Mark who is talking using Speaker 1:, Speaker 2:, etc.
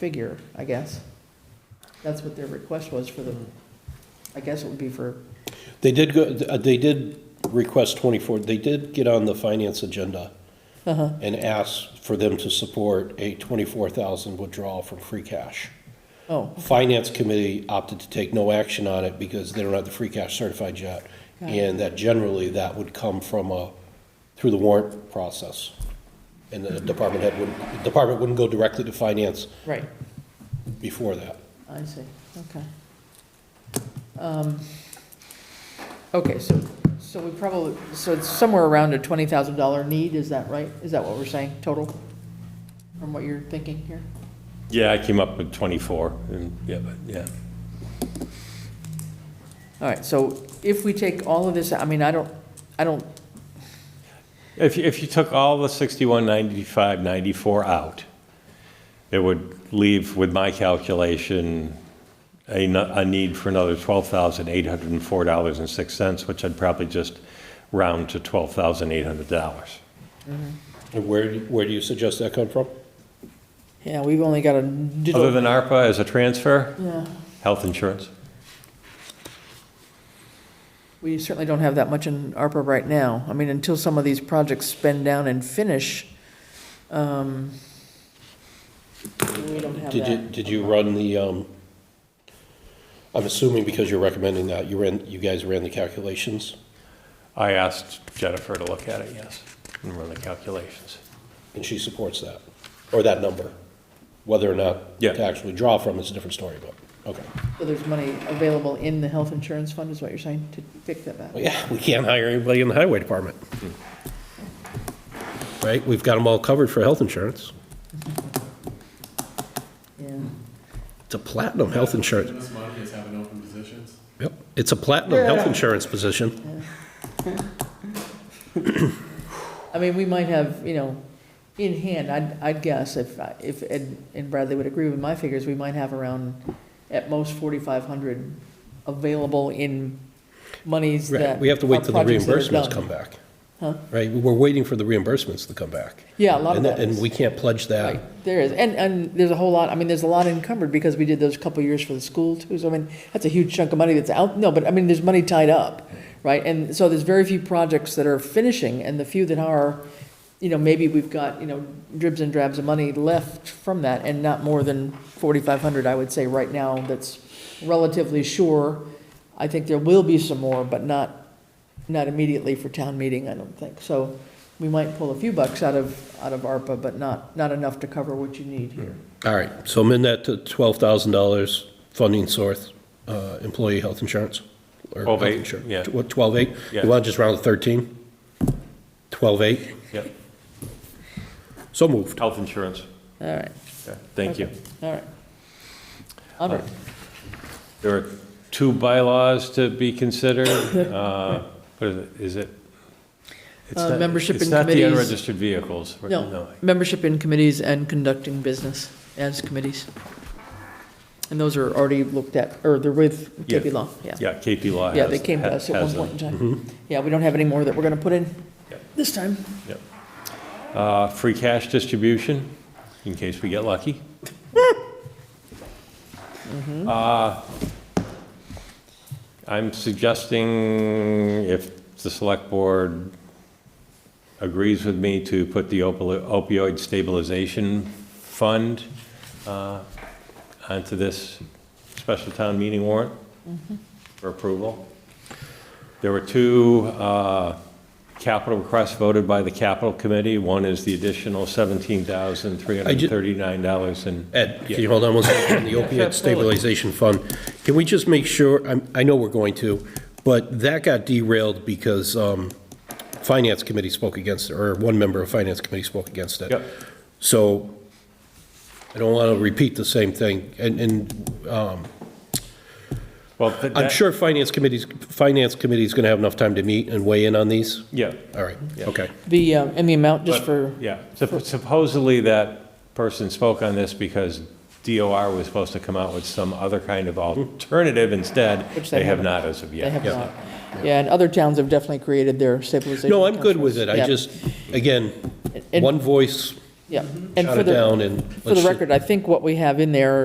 Speaker 1: figure, I guess. That's what their request was for the, I guess it would be for,
Speaker 2: They did go, uh, they did request 24, they did get on the finance agenda
Speaker 1: Uh-huh.
Speaker 2: and ask for them to support a 24,000 withdrawal from free cash.
Speaker 1: oh,
Speaker 2: Finance committee opted to take no action on it because they don't have the free cash certified yet.
Speaker 1: Got it.
Speaker 2: And that generally, that would come from a, through the warrant process. And the department head wouldn't, the department wouldn't go directly to finance
Speaker 1: right,
Speaker 2: before that.
Speaker 1: I see, okay. Um, Okay, so, so we probably, so it's somewhere around a twenty thousand dollar need, is that right? Is that what we're saying, total? From what you're thinking here?
Speaker 3: Yeah, I came up with 24, and, yeah, but, yeah.
Speaker 1: All right, so if we take all of this, I mean, I don't, I don't,
Speaker 3: If, you- if you took all the 61, 95, 94 out, it would leave, with my calculation, a, no- a need for another $12,804.06, which I'd probably just round to $12,800.
Speaker 2: And where, do- where do you suggest that come from?
Speaker 1: yeah, we've only got a.
Speaker 3: Other than ARPA as a transfer,
Speaker 1: Yeah,
Speaker 3: health insurance.
Speaker 1: We certainly don't have that much in ARPA right now. I mean, until some of these projects spend down and finish, um, we don't have
Speaker 2: Did you,
Speaker 1: that.
Speaker 2: did you run the, um, I'm assuming because you're recommending that, you ran, you guys ran the calculations?
Speaker 3: I asked Jennifer to look at it, yes, and run the calculations.
Speaker 2: And she supports that, or that number? Whether or not
Speaker 3: Yeah.
Speaker 2: to actually draw from is a different story, but, okay.
Speaker 1: So there's money available in the health insurance fund, is what you're saying, to pick that back?
Speaker 2: Well, yeah, we can't hire anybody in the highway department. Right, we've got them all covered for health insurance.
Speaker 1: Yeah,
Speaker 2: It's a platinum health insurance,
Speaker 4: This money is having open positions.
Speaker 2: yep, it's a platinum health insurance position.
Speaker 1: I mean, we might have, you know, in hand, I'd, I'd guess, if, I- if Ed and Bradley would agree with my figures, we might have around at most forty-five hundred available in monies
Speaker 2: Right,
Speaker 1: that.
Speaker 2: we have to wait
Speaker 1: are
Speaker 2: till the
Speaker 1: projects that are
Speaker 2: reimbursements
Speaker 1: done.
Speaker 2: come back.
Speaker 1: Huh?
Speaker 2: Right, we're waiting for the reimbursements to come back.
Speaker 1: Yeah, a lot of
Speaker 2: And
Speaker 1: that
Speaker 2: that-
Speaker 1: is.
Speaker 2: And we can't pledge that.
Speaker 1: Right, there is, and, and there's a whole lot, I mean, there's a lot encumbered because we did those couple years for the school too, so I mean, that's a huge chunk of money that's out, no, but I mean, there's money tied up, right? And so there's very few projects that are finishing, and the few that are, you know, maybe we've got, you know, dribs and drabs of money left from that, and not more than forty-five hundred, I would say, right now, that's relatively sure. I think there will be some more, but not, not immediately for town meeting, I don't think, so we might pull a few bucks out of, out of ARPA, but not, not enough to cover what you need here.
Speaker 2: All right, so amend that to twelve thousand dollars funding source, uh, employee health insurance. or health
Speaker 3: 12,800,
Speaker 2: insurance.
Speaker 3: yeah.
Speaker 2: What, twelve-eight?
Speaker 3: Yeah.
Speaker 2: You want to just round to thirteen? Twelve-eight?
Speaker 3: Yep,
Speaker 2: So moved.
Speaker 3: health insurance.
Speaker 1: All right,
Speaker 3: Okay, Thank you.
Speaker 1: all right. Onward.
Speaker 3: There are two bylaws to be considered. Uh, What is it? Is it? it's
Speaker 1: Uh,
Speaker 3: not-
Speaker 1: membership in
Speaker 3: It's not the
Speaker 1: committees.
Speaker 3: unregistered vehicles. right?
Speaker 1: No, membership in committees and conducting business as committees. And those are already looked at, or they're with KP
Speaker 3: Yeah.
Speaker 1: Law, yeah.
Speaker 3: Yeah, KP Law has.
Speaker 1: Yeah, they came to us at one
Speaker 3: has them.
Speaker 1: point in time. Yeah, we don't have any more that we're gonna put in
Speaker 3: Yeah.
Speaker 1: this time.
Speaker 3: Yep. Uh, Free cash distribution, in case we get lucky. Uh, I'm suggesting if the select board agrees with me to put the opi- opioid stabilization fund uh, onto this special town meeting warrant for approval. There were two uh, capital requests voted by the capital committee. One is the additional $17,339 and,
Speaker 2: Ed, can you hold on one second? The
Speaker 3: sure,
Speaker 2: opioid
Speaker 3: absolutely.
Speaker 2: stabilization fund, can we just make sure, I'm- I know we're going to, but that got derailed because um, Finance Committee spoke against it, or one member of Finance Committee spoke against it.
Speaker 3: Yep.
Speaker 2: So I don't want to repeat the same thing, and, and um,
Speaker 3: well, th-
Speaker 2: I'm
Speaker 3: that-
Speaker 2: sure Finance Committee's, Finance Committee's going to have enough time to meet and weigh in on these.
Speaker 3: Yeah.
Speaker 2: All right,
Speaker 3: Yeah.
Speaker 2: okay.
Speaker 1: The, uh, and the amount just
Speaker 3: But,
Speaker 1: for,
Speaker 3: Yeah, Supp- supposedly that person spoke on this because DOR was supposed to come out with some other kind of alternative instead.
Speaker 1: Hmm. Which they
Speaker 3: They have
Speaker 1: haven't.
Speaker 3: not as of yet.
Speaker 1: they have
Speaker 2: yeah.
Speaker 1: not. Yeah, and other towns have definitely created their stabilization.
Speaker 2: No, I'm good with
Speaker 1: accounts.
Speaker 2: it, I
Speaker 1: Yeah.
Speaker 2: just, again,
Speaker 1: And-
Speaker 2: one voice,
Speaker 1: Yeah, And
Speaker 2: shot
Speaker 1: for
Speaker 2: it
Speaker 1: the-
Speaker 2: down and.
Speaker 1: For the
Speaker 2: let's-
Speaker 1: record, I think what we have in there